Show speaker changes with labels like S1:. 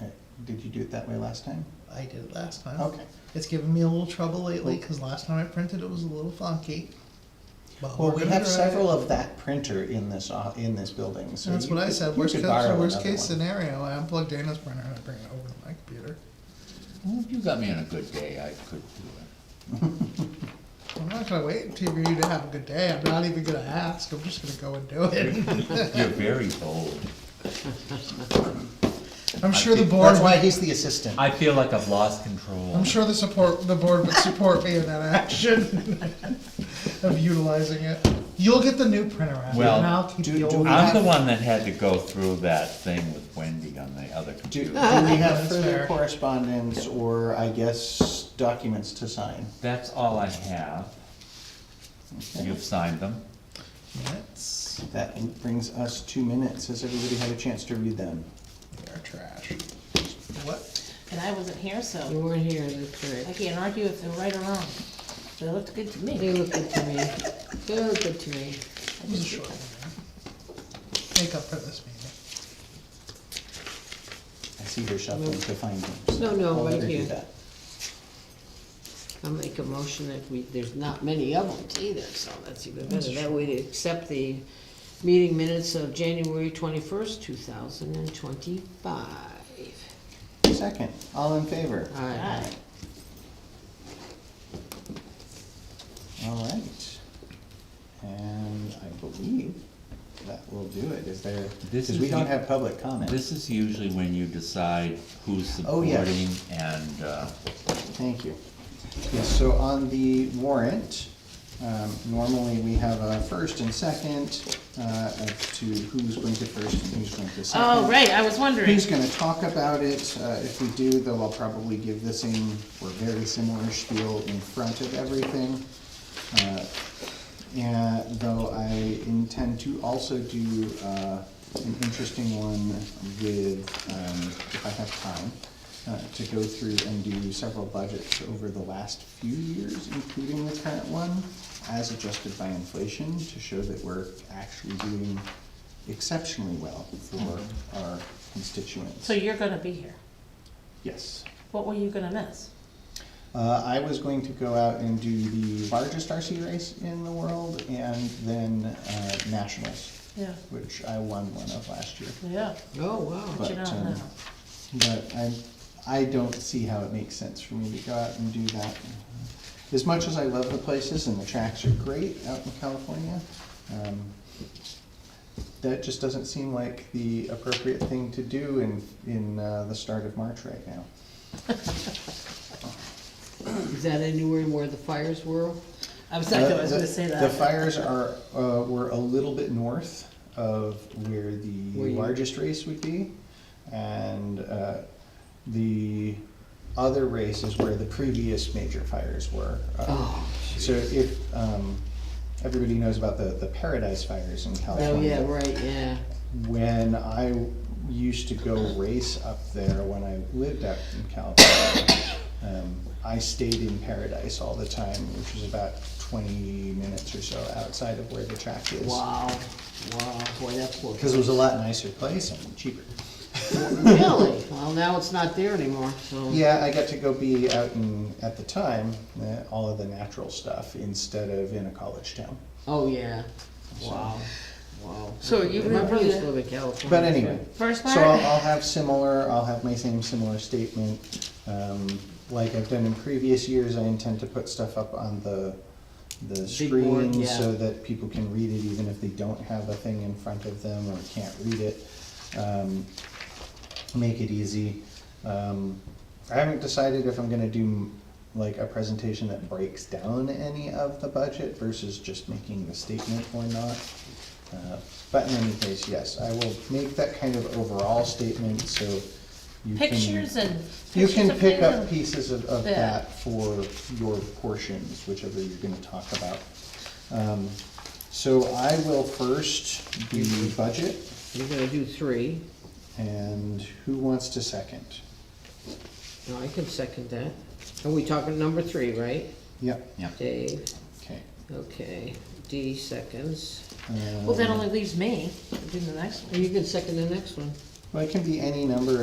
S1: Uh, Did you do it that way last time?
S2: I did it last time.
S1: Okay.
S2: It's given me a little trouble lately,
S1: Cool.
S2: because last time I printed it was a little funky. But
S1: Well,
S2: we're
S1: we
S2: gonna
S1: have
S2: try
S1: several
S2: it.
S1: of that printer in this, o- in this building, so.
S2: That's
S1: you
S2: what I
S1: could-
S2: said,
S1: you
S2: worst
S1: could
S2: case,
S1: borrow
S2: worst
S1: another
S2: case
S1: one.
S2: scenario, I unplug Dana's printer and I bring it over to my computer.
S3: Well, if you got me on a good day, I could do it.
S2: I'm not gonna wait until you to have a good day, I'm not even gonna ask, I'm just gonna go and do it.
S3: You're very bold.
S2: I'm sure the board,
S1: That's why
S2: would-
S1: he's the assistant.
S4: I feel like I've lost control.
S2: I'm sure the support, the board would support me in that action of utilizing it. You'll get the new printer out, and
S3: Well,
S2: I'll keep
S1: do-
S2: the
S1: do
S2: old.
S1: we
S2: one.
S3: I'm the one that had to go through that thing with Wendy on the other
S1: Do, do we
S3: computer.
S1: have
S2: That's
S1: further
S2: fair.
S1: correspondence or, I guess, documents to sign?
S3: That's all I have. You've signed them.
S2: Minutes,
S1: That brings us two minutes. Has everybody had a chance to read them?
S2: they're trash. What?
S5: And I wasn't here,
S6: You
S5: so
S6: weren't here, that's
S5: I
S6: right.
S5: can't argue if they're right or wrong. They looked good to
S6: They
S5: me.
S6: look good to me. They look good to me.
S2: It was a short one, man. Make up for this meeting.
S1: I see her shuffling to find them. so
S6: No, no,
S1: I'll let
S6: right
S1: her do
S6: here.
S1: that.
S6: I'll make a motion that we, there's not many of them either, so that's even better. That way to accept the meeting minutes of January twenty-first, two thousand and twenty-five.
S1: Second, all in favor?
S6: Alright,
S1: All right. And I believe that will do it. Is there,
S3: This
S1: because we
S3: is
S1: don't
S3: the-
S1: have public comment.
S3: This is usually when you decide who's
S1: Oh, yeah.
S3: supporting and, uh,
S1: Thank you. Yes, so on the warrant, um, normally we have a first and second, uh, as to who's going to first and who's going to second.
S5: Oh, right, I was wondering.
S1: Who's gonna talk about it? Uh, if we do, though, I'll probably give the same or very similar spiel in front of everything. Uh, Yeah, though I intend to also do, uh, an interesting one with, um, if I have time, uh, to go through and do several budgets over the last few years, including the current one, as adjusted by inflation, to show that we're actually doing exceptionally well for our constituents.
S5: So you're gonna be here.
S1: Yes.
S5: What were you gonna miss?
S1: Uh, I was going to go out and do the largest RC race in the world and then, uh, nationals,
S5: Yeah,
S1: which I won one of last year.
S5: yeah,
S6: oh, wow.
S5: but you
S1: But,
S5: don't
S1: um,
S5: know.
S1: But I, I don't see how it makes sense for me to go out and do that. As much as I love the places and the tracks are great out in California, um, that just doesn't seem like the appropriate thing to do in, in, uh, the start of March right now.
S6: Is that anywhere where the fires were?
S5: I was, I
S1: The-
S5: was
S1: the-
S5: gonna say
S1: The
S5: that.
S1: fires are, uh, were a little bit north of where
S6: Where
S1: the
S6: you-
S1: largest race would be. And, uh, the other race is where the previous major fires were. Uh,
S6: Oh,
S1: So if, um, everybody knows about the, the Paradise Fires in California
S6: Oh, yeah, right, yeah.
S1: when I used to go race up there when I lived out in California, um, I stayed in Paradise all the time, which was about twenty minutes or so outside of where the track is.
S6: Wow, wow, boy, that's cool.
S1: Because it was a lot nicer place and cheaper.
S6: Really? Well, now it's not there anymore, so.
S1: Yeah, I got to go be out in, at the time, uh, all of the natural stuff instead of in a college town.
S6: Oh, yeah. Wow, wow.
S5: So you
S6: My
S5: would-
S6: brothers live in California.
S1: But anyway.
S5: First
S1: So I'll,
S5: part?
S1: I'll have similar, I'll have my same similar statement. Um, like I've done in previous years, I intend to put stuff up on the, the
S6: board,
S1: screen
S6: yeah.
S1: so that people can read it even if they don't have a thing in front of them or can't read it. Um, make it easy. Um, I haven't decided if I'm gonna do like a presentation that breaks down any of the budget versus just making the statement or not. Uh, But in any case, yes, I will make that kind of overall statement, so you can.
S5: Pictures and.
S1: You
S5: pictures
S1: can
S5: of
S1: pick
S5: things
S1: up
S5: and-
S1: pieces of, of
S5: Yeah.
S1: that for your portions, whichever you're gonna talk about. Um, So I will first do budget,
S6: You're gonna do three.
S1: and who wants to second?
S6: No, I can second that. Are we talking number three, right?
S1: Yep,
S3: yeah.
S6: Dave,
S1: okay.
S6: okay, D seconds.
S5: Well, that
S1: Um,
S5: only leaves me to do the next one.
S6: You can second the next one.
S1: Well, it can be any number